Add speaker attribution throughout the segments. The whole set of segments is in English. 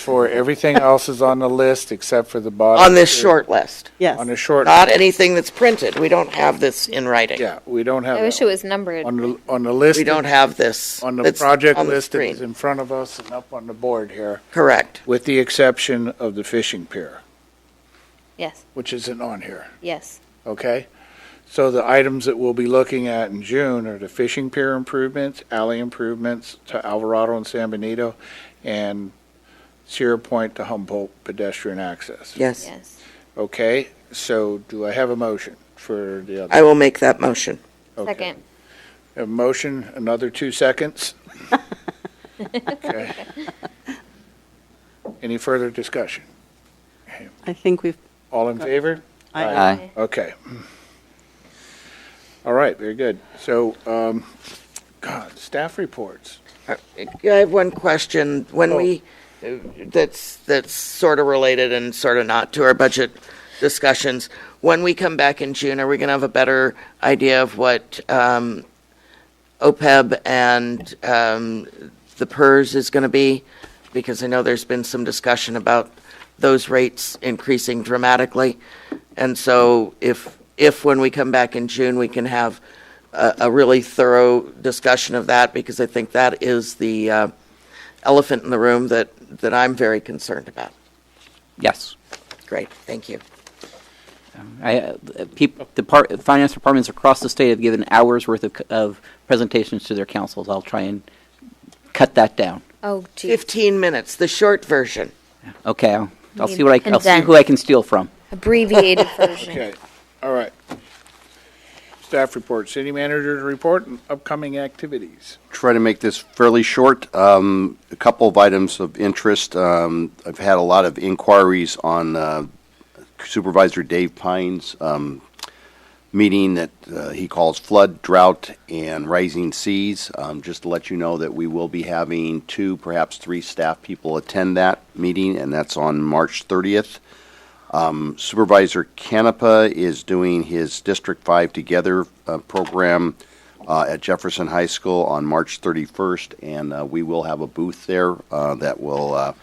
Speaker 1: For everything else is on the list except for the bottom.
Speaker 2: on this short list,
Speaker 1: On
Speaker 3: Yes.
Speaker 1: the short,
Speaker 2: not anything that's printed. We don't have this in writing.
Speaker 1: yeah, we don't have.
Speaker 4: I wish
Speaker 1: that.
Speaker 4: it was numbered.
Speaker 1: On the, on the list.
Speaker 2: We don't have this.
Speaker 1: On the
Speaker 2: that's
Speaker 1: project
Speaker 2: on the
Speaker 1: list that
Speaker 2: screen.
Speaker 1: is in front of us and up on the board here,
Speaker 2: Correct.
Speaker 1: with the exception of the fishing pier,
Speaker 4: Yes,
Speaker 1: which isn't on here,
Speaker 4: yes,
Speaker 1: okay? So the items that we'll be looking at in June are the fishing pier improvements, alley improvements to Alvarado and San Benito, and Sierra Point to Humboldt pedestrian access.
Speaker 2: Yes.
Speaker 4: yes.
Speaker 1: Okay, so do I have a motion for the other?
Speaker 2: I will make that motion.
Speaker 1: Okay.
Speaker 4: Second,
Speaker 1: A motion, another two seconds. Okay. Any further discussion?
Speaker 3: I think we've,
Speaker 1: All in favor?
Speaker 3: I-
Speaker 5: Aye.
Speaker 1: Okay. All right, very good. So, um, God, staff reports.
Speaker 2: Uh, I have one question. When
Speaker 1: Oh.
Speaker 2: we, uh, that's, that's sort of related and sort of not to our budget discussions. When we come back in June, are we going to have a better idea of what um, OPEB E and um, the PERS is going to be? Because I know there's been some discussion about those rates increasing dramatically. And so if, if when we come back in June, we can have a, a really thorough discussion of that, because I think that is the uh, elephant in the room that, that I'm very concerned about.
Speaker 5: Yes.
Speaker 2: Great, thank you.
Speaker 5: I, uh, peop the par- finance departments across the state have given hours worth of, c- of presentations to their councils. I'll try and cut that down.
Speaker 4: oh gee,
Speaker 2: 15 minutes, the short version.
Speaker 5: Okay, I'll, I'll
Speaker 4: Need
Speaker 5: see what I, c- I'll see who I can steal from.
Speaker 4: abbreviated version.
Speaker 1: Okay, all right. Staff report, city manager's report and upcoming activities.
Speaker 6: try to make this fairly short. Um, A couple of items of interest. Um, I've had a lot of inquiries on uh, Supervisor Dave Pine's um, meeting that uh, he calls flood, drought, and rising seas. Um, Just to let you know that we will be having two, perhaps three staff people attend that meeting, and that's on March 30th. Um, Supervisor Canepa is doing his District 5 Together uh, program uh, at Jefferson High School on March 31st, and uh, we will have a booth there uh, that will uh,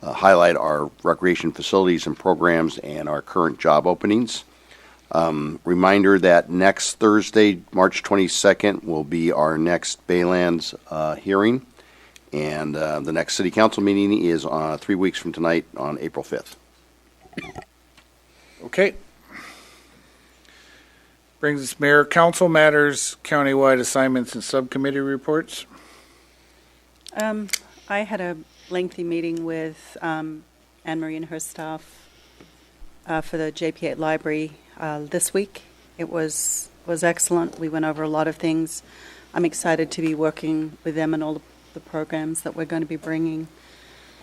Speaker 6: uh, highlight our recreation facilities and programs and our current job openings. Um, Reminder that next Thursday, March 22nd, will be our next Baylands uh, hearing, and uh, the next city council meeting is uh, three weeks from tonight on April 5th.
Speaker 1: Okay. Brings us mayor council matters, countywide assignments and subcommittee reports.
Speaker 3: um, I had a lengthy meeting with um, Anne Marie and her staff uh, for the JP8 Library uh, this week. It was, was excellent. We went over a lot of things. I'm excited to be working with them and all the programs that we're going to be bringing.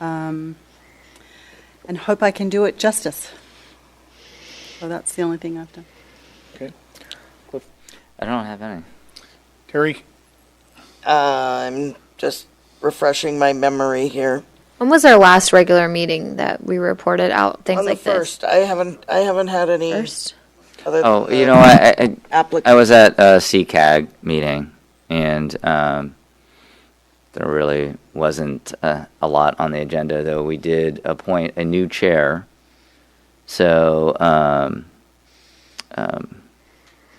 Speaker 3: Um, And hope I can do it justice. So that's the only thing I've done.
Speaker 1: Okay.
Speaker 5: I don't have any.
Speaker 1: Terry?
Speaker 2: Uh, I'm just refreshing my memory here.
Speaker 4: When was our last regular meeting that we reported out things
Speaker 2: On the
Speaker 4: like this?
Speaker 2: first, I haven't, I haven't had any
Speaker 4: First.
Speaker 2: other uh, than
Speaker 7: Oh,
Speaker 2: the
Speaker 7: you know, what? I, I, I
Speaker 2: applica-
Speaker 7: was at a CCAG meeting, and um, there really wasn't uh, a lot on the agenda, though we did appoint a new chair. So, um, um,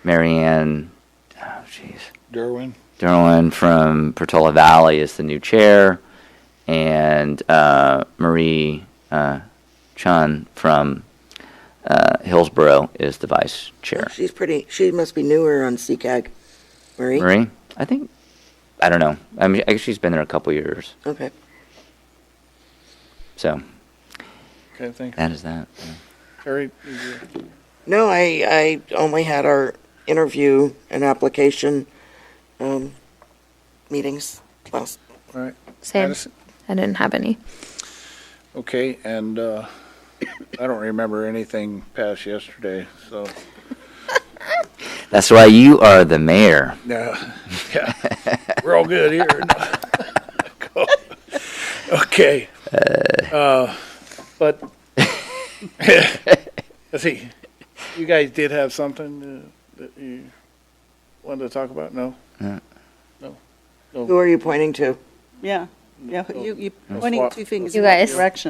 Speaker 7: Marianne, oh, jeez.
Speaker 1: Derwin?
Speaker 7: Derwin from Portola Valley is the new chair, and uh, Marie uh, Chun from uh, Hillsborough is the vice chair.
Speaker 2: She's pretty, she must be newer on CCAG. Marie?
Speaker 7: Marie, I think I don't know. I mean, I guess she's been there a couple years,
Speaker 2: Okay.
Speaker 7: so
Speaker 1: Okay, thank you.
Speaker 7: that is that.
Speaker 1: Terry? did you-
Speaker 2: No, I, I only had our interview and application um, meetings last.
Speaker 1: All right.
Speaker 4: Same.
Speaker 1: Madison?
Speaker 4: I didn't have any.
Speaker 1: Okay, and uh, I don't remember anything past yesterday, so,
Speaker 7: That's why you are the mayor.
Speaker 1: no, yeah, we're all good here. Okay. Uh, But, let's see, you guys did have something uh, that you wanted to talk about? No?
Speaker 2: Who are you pointing to?
Speaker 3: Yeah, yeah, you, you're
Speaker 1: That's
Speaker 3: pointing
Speaker 1: what-
Speaker 3: two fingers
Speaker 4: You
Speaker 3: in that
Speaker 4: guys.
Speaker 3: direction.